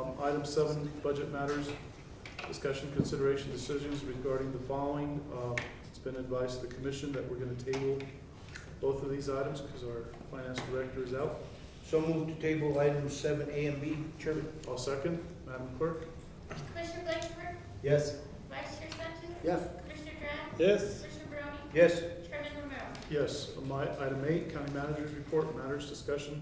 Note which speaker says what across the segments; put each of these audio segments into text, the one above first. Speaker 1: Um, Item seven, budget matters, discussion, consideration, decisions regarding the following. Uh, It's been advised to the commission that we're going to table both of these items because our finance director is out.
Speaker 2: So move to table items seven A and B, Chairman.
Speaker 1: I'll second. Madam Clerk?
Speaker 3: Commissioner Blakenher,
Speaker 2: Yes.
Speaker 3: Vice Chair Sanchez,
Speaker 2: Yes.
Speaker 3: Commissioner Drab,
Speaker 4: Yes.
Speaker 3: Commissioner Barone,
Speaker 2: Yes.
Speaker 3: Chairman Romero.
Speaker 1: Yes. Um, My, item eight, county manager's report, matters, discussion,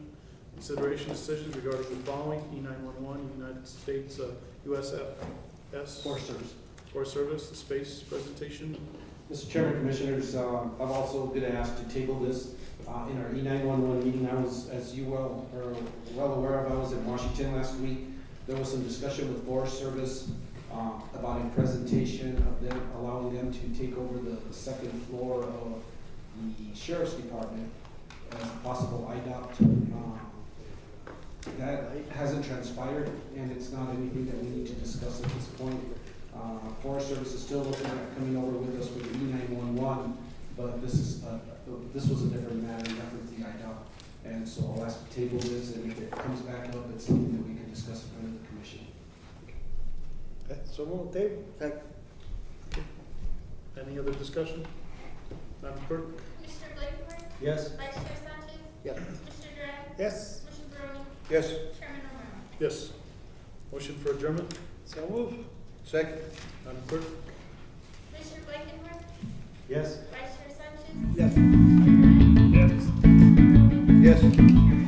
Speaker 1: consideration, decisions regarding the following. E nine-one-one, United States uh, USFS.
Speaker 5: Foresters.
Speaker 1: Forest Service, the space presentation.
Speaker 5: Mr. Chairman, Commissioners, um, I'm also going to ask to table this uh, in our E911 meeting. I was, as you well are well aware of, I was in Washington last week. There was some discussion with Forest Service uh, about a presentation of them, allowing them to take over the second floor of the Sheriff's Department as possible IDOT. um, That hasn't transpired, and it's not anything that we need to discuss at this point. Uh, Forest Service is still looking at coming over with us for the E nine one one, but this is, uh, this was a different matter, reference the IDOT. And so I'll ask to table this, and if it comes back up, it's something that we can discuss in front of the commission.
Speaker 4: So move table.
Speaker 1: Any other discussion? Madam Clerk?
Speaker 3: Commissioner Blakenher,
Speaker 2: Yes.
Speaker 3: Vice Chair Sanchez,
Speaker 2: Yes.
Speaker 3: Commissioner Drab,
Speaker 4: Yes.
Speaker 3: Commissioner Barone,
Speaker 2: Yes.
Speaker 3: Chairman Romero.
Speaker 1: Yes. Motion for adjournment,
Speaker 4: So move.
Speaker 2: Second.
Speaker 1: Madam Clerk?
Speaker 3: Commissioner Blakenher,
Speaker 2: Yes.
Speaker 3: Vice Chair Sanchez,
Speaker 2: Yes.
Speaker 3: Commissioner Drab,
Speaker 2: Yes.
Speaker 3: Chairman